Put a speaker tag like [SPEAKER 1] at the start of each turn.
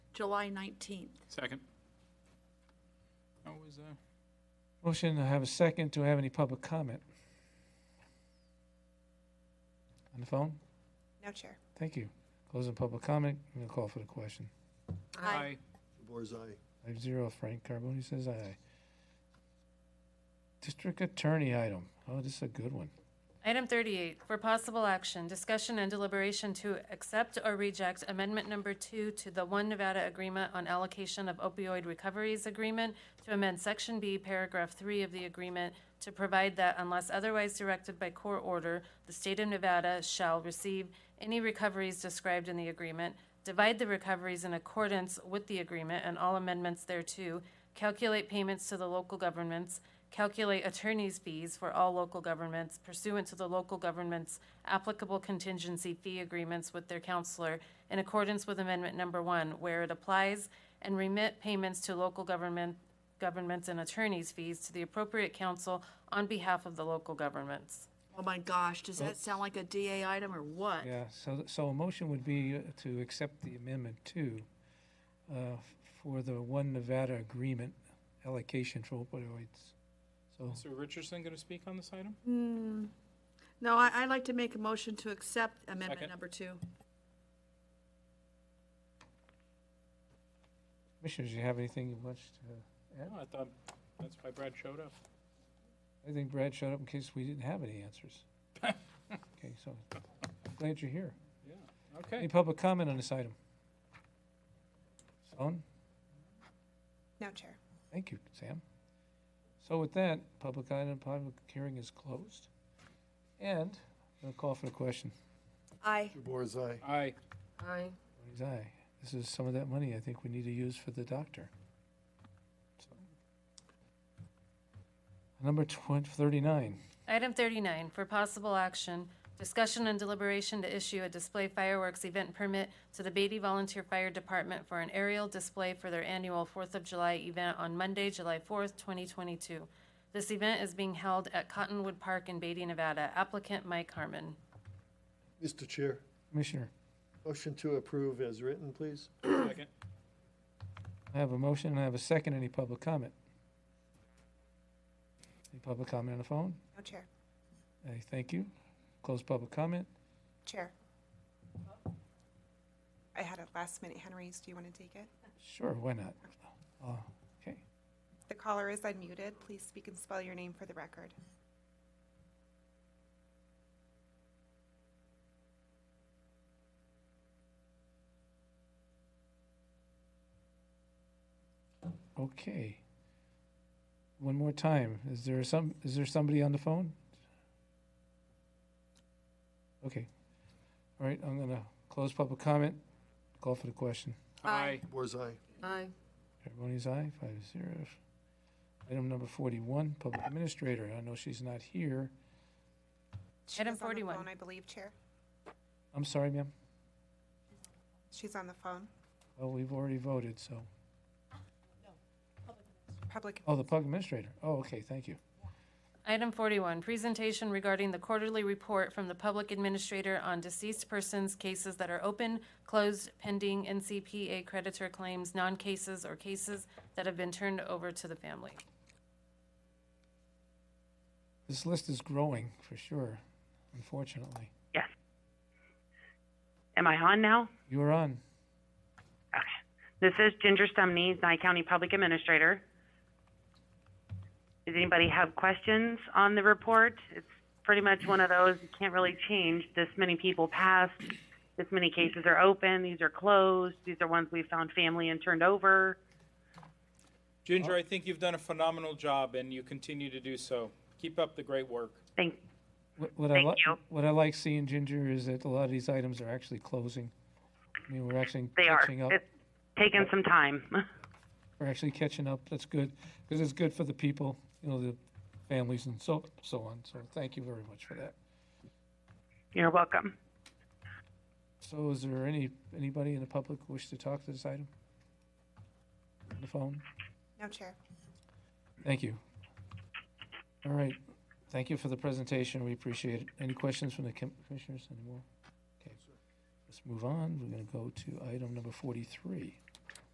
[SPEAKER 1] July 19th.
[SPEAKER 2] Second. Always, uh,
[SPEAKER 3] Motion, I have a second. Do I have any public comment? On the phone?
[SPEAKER 4] No, Chair.
[SPEAKER 3] Thank you. Closing public comment. I'm gonna call for the question.
[SPEAKER 1] Aye.
[SPEAKER 5] DeBoer's aye.
[SPEAKER 3] Five zero, Frank Carbone says aye. District Attorney item. Oh, this is a good one.
[SPEAKER 6] Item 38, for possible action, discussion and deliberation to accept or reject Amendment Number 2 to the One Nevada Agreement on Allocation of Opioid Recoveries Agreement to amend Section B, Paragraph 3 of the agreement to provide that unless otherwise directed by court order, the state of Nevada shall receive any recoveries described in the agreement, divide the recoveries in accordance with the agreement and all amendments thereto, calculate payments to the local governments, calculate attorney's fees for all local governments pursuant to the local government's applicable contingency fee agreements with their counselor in accordance with Amendment Number One, where it applies, and remit payments to local government, governments and attorney's fees to the appropriate council on behalf of the local governments.
[SPEAKER 1] Oh my gosh, does that sound like a DA item or what?
[SPEAKER 3] Yeah, so, so a motion would be uh, to accept the amendment two uh, for the One Nevada Agreement allocation for opioids. So,
[SPEAKER 2] Mr. Richardson going to speak on this item?
[SPEAKER 1] No, I, I'd like to make a motion to accept amendment
[SPEAKER 2] Second.
[SPEAKER 1] number two.
[SPEAKER 3] Commissioners, you have anything you want to add?
[SPEAKER 2] No, I thought that's why Brad showed up.
[SPEAKER 3] I think Brad showed up in case we didn't have any answers. Okay, so glad you're here.
[SPEAKER 2] Yeah,
[SPEAKER 3] Any
[SPEAKER 2] okay.
[SPEAKER 3] public comment on this item? Sloan?
[SPEAKER 4] No, Chair.
[SPEAKER 3] Thank you, Sam. So with that, public item, public hearing is closed. And I'm going to call for the question.
[SPEAKER 1] Aye.
[SPEAKER 5] DeBoer's aye.
[SPEAKER 2] Aye.
[SPEAKER 6] Aye.
[SPEAKER 3] Votes aye. This is some of that money I think we need to use for the doctor. So. Number twen- 39.
[SPEAKER 6] Item 39, for possible action, discussion and deliberation to issue a display fireworks event permit to the Beatty Volunteer Fire Department for an aerial display for their annual Fourth of July event on Monday, July 4th, 2022. This event is being held at Cottonwood Park in Beatty, Nevada. Applicant Mike Harmon.
[SPEAKER 5] Mr. Chair,
[SPEAKER 3] Commissioner,
[SPEAKER 5] motion to approve as written, please.
[SPEAKER 2] Second.
[SPEAKER 3] I have a motion and I have a second. Any public comment? Any public comment on the phone?
[SPEAKER 4] No, Chair.
[SPEAKER 3] I thank you. Close public comment.
[SPEAKER 4] Chair. I had a last minute Henry's. Do you want to take it?
[SPEAKER 3] Sure, why not? Uh, Okay.
[SPEAKER 4] The caller is unmuted. Please speak and spell your name for the record.
[SPEAKER 3] Okay. One more time. Is there some, is there somebody on the phone? Okay. All right, I'm gonna close public comment, call for the question.
[SPEAKER 1] Aye.
[SPEAKER 5] DeBoer's aye.
[SPEAKER 6] Aye.
[SPEAKER 3] Everybody's aye, five zero. Item number forty-one, public administrator. I know she's not here.
[SPEAKER 4] She
[SPEAKER 6] Item
[SPEAKER 4] was on the
[SPEAKER 6] 41.
[SPEAKER 4] phone, I believe, Chair.
[SPEAKER 3] I'm sorry, ma'am.
[SPEAKER 4] She's on the phone.
[SPEAKER 3] Oh, we've already voted, so.
[SPEAKER 4] Public,
[SPEAKER 3] Oh, the public administrator. Oh, okay, thank you.
[SPEAKER 6] Item 41, presentation regarding the quarterly report from the public administrator on deceased persons, cases that are open, closed, pending, NCPA creditor claims, non-cases, or cases that have been turned over to the family.
[SPEAKER 3] This list is growing for sure, unfortunately.
[SPEAKER 7] Yes. Am I on now?
[SPEAKER 3] You are on.
[SPEAKER 7] Okay. This is Ginger Stumney, Nye County Public Administrator. Does anybody have questions on the report? It's pretty much one of those you can't really change. This many people passed. This many cases are open. These are closed. These are ones we found family and turned over.
[SPEAKER 2] Ginger, I think you've done a phenomenal job and you continue to do so. Keep up the great work.
[SPEAKER 7] Thank,
[SPEAKER 3] What, what I
[SPEAKER 7] Thank
[SPEAKER 3] like,
[SPEAKER 7] you.
[SPEAKER 3] what I like seeing, Ginger, is that a lot of these items are actually closing. I mean, we're actually
[SPEAKER 7] they are.
[SPEAKER 3] catching up.
[SPEAKER 7] It's taken some time.
[SPEAKER 3] We're actually catching up. That's good, because it's good for the people, you know, the families and so, so on. So thank you very much for that.
[SPEAKER 7] You're welcome.
[SPEAKER 3] So is there any, anybody in the public wish to talk to this item? On the phone?
[SPEAKER 4] no, Chair.
[SPEAKER 3] Thank you. All right. Thank you for the presentation. We appreciate it. Any questions from the com- commissioners anymore? Okay. Let's move on. We're going to go to item number 43.